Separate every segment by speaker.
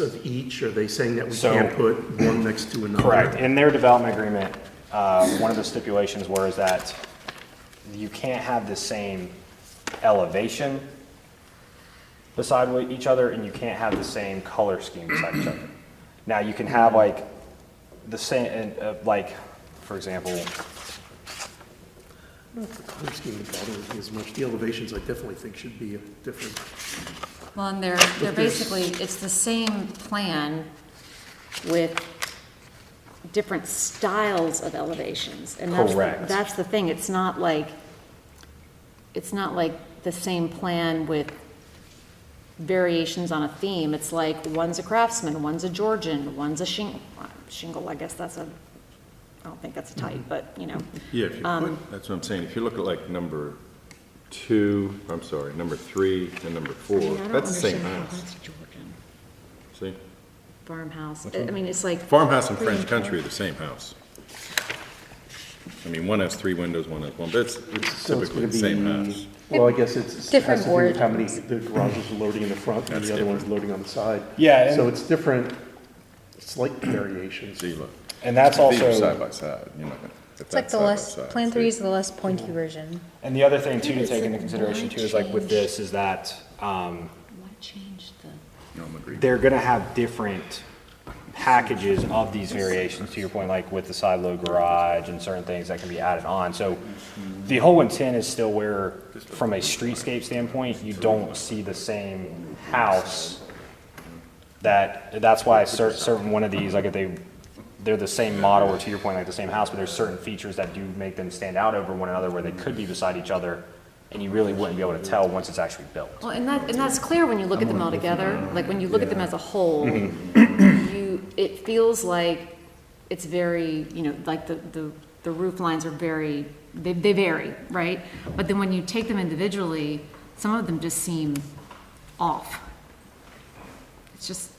Speaker 1: of each? Are they saying that we
Speaker 2: So-
Speaker 1: can't put one next to another?
Speaker 2: Correct. In their development agreement, uh, one of the stipulations was that you can't have the same elevation beside wa- each other, and you can't have the same color scheme beside each other. Now, you can have like the same, and, uh, like, for example,
Speaker 1: The color scheme would bother me as much. The elevations, I definitely think should be different.
Speaker 3: Well, and they're, they're basically, it's the same plan with different styles of elevations. And that's, the-
Speaker 2: Correct.
Speaker 3: that's the thing, it's not like, it's not like the same plan with variations on a theme. It's like, one's a craftsman, one's a Georgian, one's a shingle, shingle, I guess that's a, I don't think that's a type, but, you know.
Speaker 4: Yeah, if you put, that's what I'm saying, if you look at like number two, I'm sorry, number three and number
Speaker 3: I
Speaker 4: four,
Speaker 3: mean, I don't
Speaker 4: that's the same
Speaker 3: understand how
Speaker 4: house.
Speaker 3: That's Georgian,
Speaker 4: See?
Speaker 3: farmhouse, I I mean, it's like.
Speaker 4: Farmhouse and French country are the same house. I mean, one has three windows, one has one, but it's it's
Speaker 5: So it's
Speaker 4: typically
Speaker 5: gonna
Speaker 4: the same
Speaker 5: be,
Speaker 4: house.
Speaker 5: well, I guess it's, it has
Speaker 3: Different
Speaker 5: to do with how many,
Speaker 3: origins.
Speaker 5: the garage is loading in the front and
Speaker 4: That's
Speaker 5: the other one's loading on the side.
Speaker 2: Yeah, and-
Speaker 5: So it's different, slight variations.
Speaker 4: See, look,
Speaker 2: and that's
Speaker 4: these are
Speaker 2: also,
Speaker 4: side by side, you're not gonna.
Speaker 6: It's like the less, Plan 3 is the less pointy version.
Speaker 2: and the other thing too to take into consideration too is like with this is that, um,
Speaker 3: Why change the?
Speaker 4: No, I'm agreeing.
Speaker 2: they're gonna have different packages of these variations, to your point, like with the side load garage and certain things that can be added on. So the whole intent is still where, from a streetscape standpoint, you don't see the same house. That, that's why cer- certain one of these, like if they, they're the same model, or to your point, like the same house, but there's certain features that do make them stand out over one another where they could be beside each other, and you really wouldn't be able to tell once it's actually built.
Speaker 3: Well, and that, and that's clear when you look at them all together, like when you look at them as a whole, you, it feels like it's very, you know, like the, the, the roof lines are very, they, they vary, right? But then when you take them individually, some of them just seem off. It's just,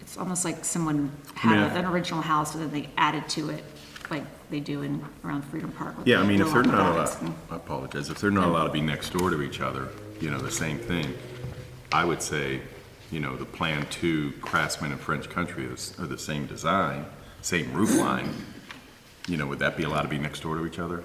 Speaker 3: it's almost like someone had an original house, but then they added to it, like they do in, around Freedom Park. with
Speaker 4: Yeah, I
Speaker 3: the
Speaker 4: mean, if they're
Speaker 3: Willow
Speaker 4: not
Speaker 3: Gardens
Speaker 4: allowed,
Speaker 3: and-
Speaker 4: I apologize, if they're not allowed to be next door to each other, you know, the same thing, I would say, you know, the Plan Two Craftsman and French Country is, are the same design, same roof line, you know, would that be allowed to be next door to each other?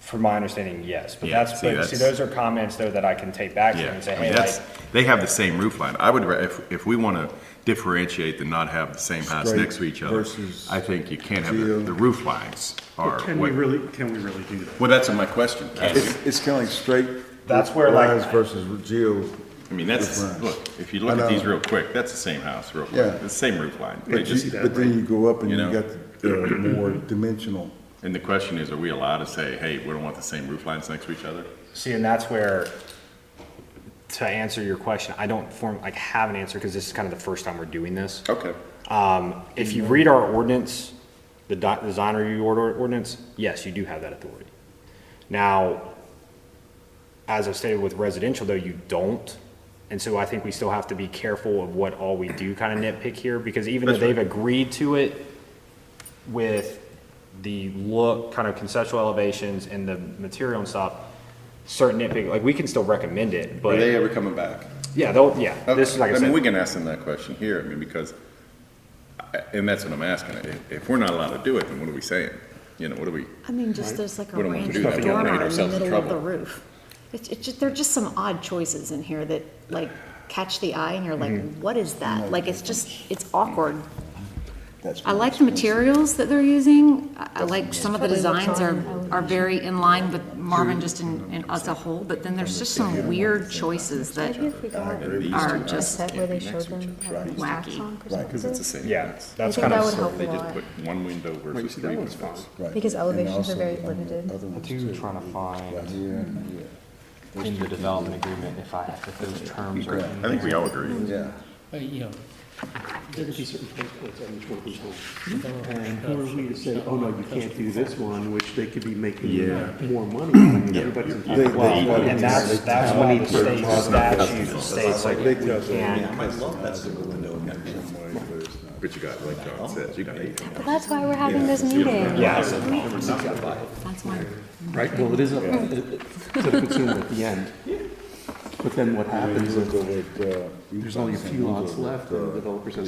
Speaker 2: From my understanding, yes, but
Speaker 4: Yeah,
Speaker 2: that's,
Speaker 4: see,
Speaker 2: but see,
Speaker 4: that's-
Speaker 2: those are comments though that I can take back to you
Speaker 4: Yeah,
Speaker 2: and say,
Speaker 4: I mean,
Speaker 2: hey, like,
Speaker 4: that's, they have the same roof line, I would, ra- if, if we wanna differentiate and not have the same house
Speaker 7: Straight
Speaker 4: next to each other,
Speaker 7: versus
Speaker 4: I think you can't have,
Speaker 7: geo.
Speaker 4: the- the roof lines are,
Speaker 5: Can we
Speaker 4: what-
Speaker 5: really, can we really do that?
Speaker 4: well, that's my question, Can we?
Speaker 7: It's, it's kind of like straight.
Speaker 2: That's where, like,
Speaker 7: Lines versus geo.
Speaker 4: I mean, that's,
Speaker 7: Roof lines.
Speaker 4: look, if you look
Speaker 7: I
Speaker 4: at these
Speaker 7: know.
Speaker 4: real quick, that's the same house, real
Speaker 7: Yeah.
Speaker 4: quick, the same roof line. They
Speaker 7: But
Speaker 4: just,
Speaker 7: you- but then you go up and
Speaker 4: You
Speaker 7: you
Speaker 4: know?
Speaker 7: got the uh, more dimensional.
Speaker 4: and the question is, are we allowed to say, hey, we don't want the same roof lines next to each other?
Speaker 2: see, and that's where, to answer your question, I don't form, like, have an answer, because this is kind of the first time we're doing this.
Speaker 4: Okay.
Speaker 2: Um, if you read our ordinance, the di- design review order ordinance, yes, you do have that authority. Now, as I've stated with residential though, you don't. And so I think we still have to be careful of what all we do kind of nitpick here, because even though
Speaker 4: That's right.
Speaker 2: they've agreed to it with the look, kind of conceptual elevations and the material and stuff, certain nitpick, like, we can still recommend it,
Speaker 4: Are they
Speaker 2: but,
Speaker 4: ever coming back?
Speaker 2: yeah, they'll, yeah, this is like I
Speaker 4: mean, we
Speaker 2: said,
Speaker 4: can ask them that question here, I mean, because, I- and that's what I'm asking, if, if we're not allowed to do it, then what are we saying? You know, what are we,
Speaker 3: I mean, just there's like a
Speaker 4: We don't want to
Speaker 3: range
Speaker 4: do
Speaker 3: of
Speaker 4: that. We don't want
Speaker 3: dormer
Speaker 4: to get
Speaker 3: in the
Speaker 4: ourselves in
Speaker 3: middle of the
Speaker 4: trouble.
Speaker 3: roof. It's, it's just, there are just some odd choices in here that like catch the eye and you're like, what is that? Like, it's just, it's awkward.
Speaker 7: That's
Speaker 3: I
Speaker 7: what
Speaker 3: like
Speaker 7: it's
Speaker 3: the
Speaker 7: gonna be.
Speaker 3: materials that they're using. I I like some of the
Speaker 6: Probably what's
Speaker 3: designs are,
Speaker 6: on elevation.
Speaker 3: are very in line with Marvin just in, in as a whole, but then there's just some weird choices that are just
Speaker 6: Set where they showed them having
Speaker 3: wacky.
Speaker 6: honk
Speaker 7: Right.
Speaker 6: or
Speaker 7: 'Cause
Speaker 4: because it's the
Speaker 6: something.
Speaker 4: same.
Speaker 2: yeah,
Speaker 6: I
Speaker 2: that's
Speaker 6: think
Speaker 2: kind
Speaker 6: that
Speaker 2: of.
Speaker 6: would help a
Speaker 4: They just
Speaker 6: lot.
Speaker 4: put one window versus three windows.
Speaker 7: Right.
Speaker 6: Because
Speaker 7: And
Speaker 6: elevations are
Speaker 7: also
Speaker 6: very
Speaker 7: on the
Speaker 6: limited.
Speaker 7: other ones
Speaker 2: Two,
Speaker 7: too.
Speaker 2: trying to find.
Speaker 7: Right here and here.
Speaker 2: in the development agreement if I, if those terms are in
Speaker 4: I think we
Speaker 2: there.
Speaker 4: all agree.
Speaker 7: Yeah.
Speaker 8: But, you know,
Speaker 5: There could be certain place points on which one we hold. And who are we to say, oh, no, you can't do this one, which they could be making more money. Everybody's entitled
Speaker 7: They- they-
Speaker 2: And that's, that's why the state statute states like,
Speaker 7: They tell us
Speaker 2: and
Speaker 4: But you got, like John says, you got eight.
Speaker 6: But that's why we're having this meeting.
Speaker 3: That's why.
Speaker 5: Right, well, it is up to the consumer at the end. But then what happens
Speaker 7: When you
Speaker 5: is,
Speaker 7: look over at, uh,
Speaker 5: there's only a
Speaker 7: Utah,
Speaker 5: few
Speaker 7: you look
Speaker 5: lots
Speaker 7: over at,
Speaker 5: left, and the
Speaker 7: uh,
Speaker 5: developer says,